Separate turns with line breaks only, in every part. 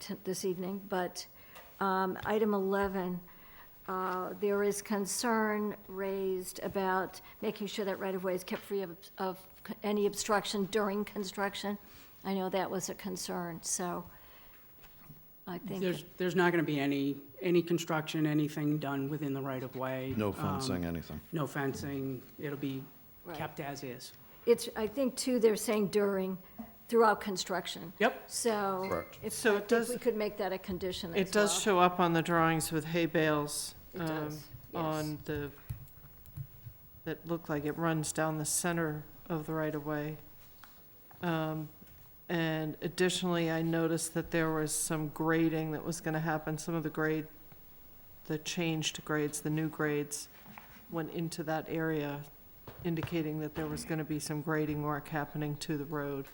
t- this evening, but um, item 11, uh, there is concern raised about making sure that right-of-way is kept free of, of any obstruction during construction. I know that was a concern, so I think.
There's, there's not going to be any, any construction, anything done within the right-of-way.
No
Um,
fencing, anything.
No fencing. It'll be
Right.
kept as is.
It's, I think too, they're saying during, throughout construction.
Yep,
So
Correct.
if,
So
I think
it does-
we could make that a condition
It
as well.
does show up on the drawings with hay bales.
It
um,
does, yes.
On the, that look like it runs down the center of the right-of-way. Um, And additionally, I noticed that there was some grading that was gonna happen. Some of the grade, the changed grades, the new grades, went into that area, indicating that there was gonna be some grading work happening to the road.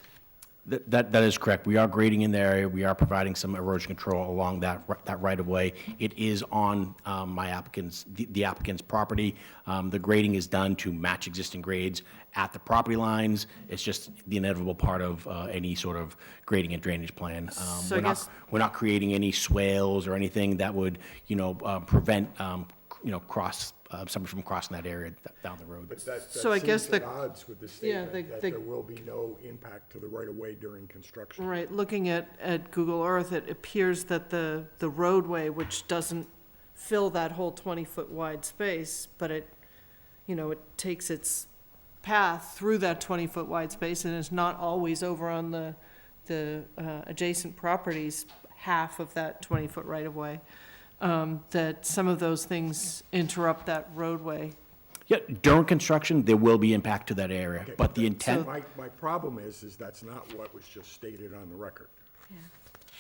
Th- That, that is correct. We are grading in the area. We are providing some erosion control along that, ri- that right-of-way. It is on um, my applicant's, the the applicant's property. Um, The grading is done to match existing grades at the property lines. It's just the inevitable part of uh, any sort of grading and drainage plan. Um,
So I
We're not,
guess-
we're not creating any swales or anything that would, you know, uh, prevent, um, c- you know, cross, uh, somebody from crossing that area th- down the road.
But that,
So I
that
guess
seems at
the-
odds with the
yeah,
statement
the-
that
the-
there will be no impact to the right-of-way during construction.
Right, looking at, at Google Earth, it appears that the, the roadway, which doesn't fill that whole twenty-foot wide space, but it, you know, it takes its path through that twenty-foot wide space and is not always over on the, the, uh, adjacent properties, half of that twenty-foot right-of-way, um, that some of those things interrupt that roadway.
Yeah, during construction, there will be impact to that area,
Okay,
but the
so
intent.
My, my problem is, is that's not what was just stated on the record.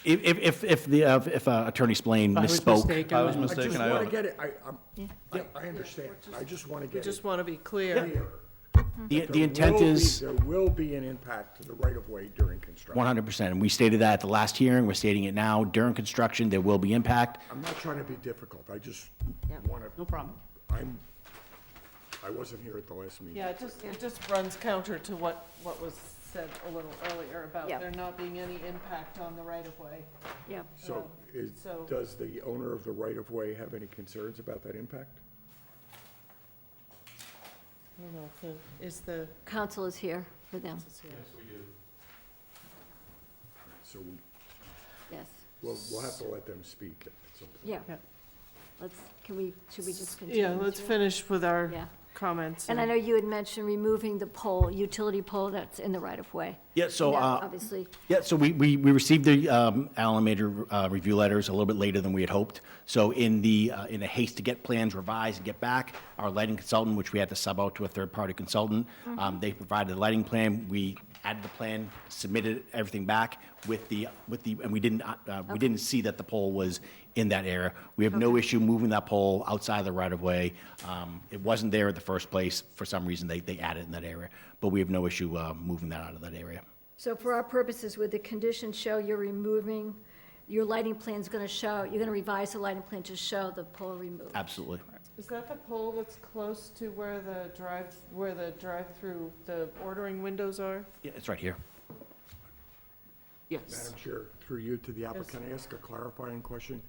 If, if- if, if the, uh, if uh, Attorney Splain
I was
misspoke.
mistaken.
I was
then.
I just
mistaken, I
want to
own it.
get it, I, I'm, I- I understand, I just want to
We
get it
just want to be clear.
clear.
The, the
There
intent
will be-
is
There will be an impact to the right-of-way during construction.
100%. And we stated that at the last hearing, we're stating it now. During construction, there will be impact.
I'm not trying to be difficult, I just
Yeah.
want
no
to,
problem.
I'm, I wasn't here at the last meeting.
Yeah, it just, it just runs counter to what, what was said a little earlier about
Yeah.
there not being any impact on the right-of-way.
Yeah,
So, is,
so-
does the owner of the right-of-way have any concerns about that impact?
I don't know if the, is the,
council is here for them,
So we
yes.
Well, we'll have to let them speak at some point.
Yeah.
Yeah.
Let's, can we, should we just continue?
yeah, let's
through?
finish with our
Yeah.
comments.
And I know you had mentioned removing the pole, utility pole that's in the right-of-way.
Yeah, so,
That
uh,
Obviously,
Yeah, so we, we, we received the um, Allen Major uh, review letters a little bit later than we had hoped. So in the, uh, in a haste to get plans revised and get back, our lighting consultant, which we had to sub out to a third-party consultant, um, they provided the lighting plan, we added the plan, submitted everything back with the, with the, and we didn't, uh, uh, we didn't see that the pole was in that area. We have no issue moving that pole outside of the right-of-way. Um, It wasn't there in the first place, for some reason, they, they added it in that area, but we have no issue uh, moving that out of that area.
so for our purposes, would the condition show you're removing, your lighting plan's gonna show, you're gonna revise the lighting plan to show the pole removed?
Absolutely.
Is that the pole that's close to where the drive, where the drive-through, the ordering windows are?
Yeah, it's right here.
Yes.
Madam Chair, through you to the applicant, I ask a clarifying question.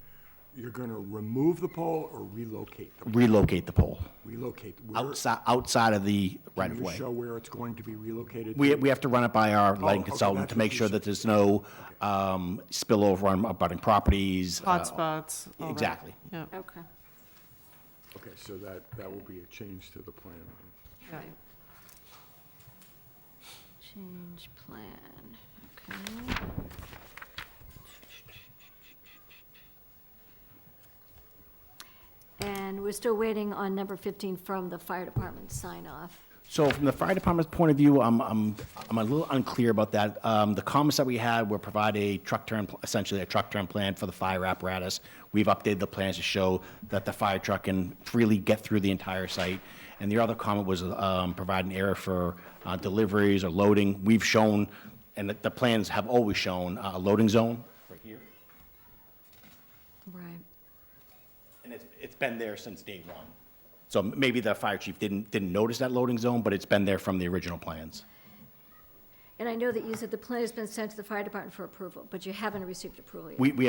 You're going to remove the pole or relocate them?
Relocate the pole
Relocate. Where-
outside, outside of the right
Can
of
you
way.
show where it's going to be relocated?
We,
to?
we have to run it by our lighting
okay,
consultant
that's
to make
what you
sure that there's no um, spillover on abutting properties. uh,
Hotspots. all that.
Exactly.
Yeah,
Okay.
Okay, so that, that will be a change to the plan.
yeah.
Change plan, okay. And we're still waiting on number 15 from the fire department sign off.
So from the fire department's point of view, I'm, I'm, I'm a little unclear about that. Um, the comments that we had were provide a truck turn, pl- essentially a truck turn plan for the fire apparatus. We've updated the plans to show that the fire truck can freely get through the entire site. And the other comment was, um, provide an area for, uh, deliveries or loading. We've shown, and the, the plans have always shown, uh, a loading zone. Right here.
Right.
And it's, it's been there since day one. So maybe the fire chief didn't, didn't notice that loading zone, but it's been there from the original plans.
And I know that you said the plan has been sent to the fire department for approval, but you haven't received approval yet.
We, we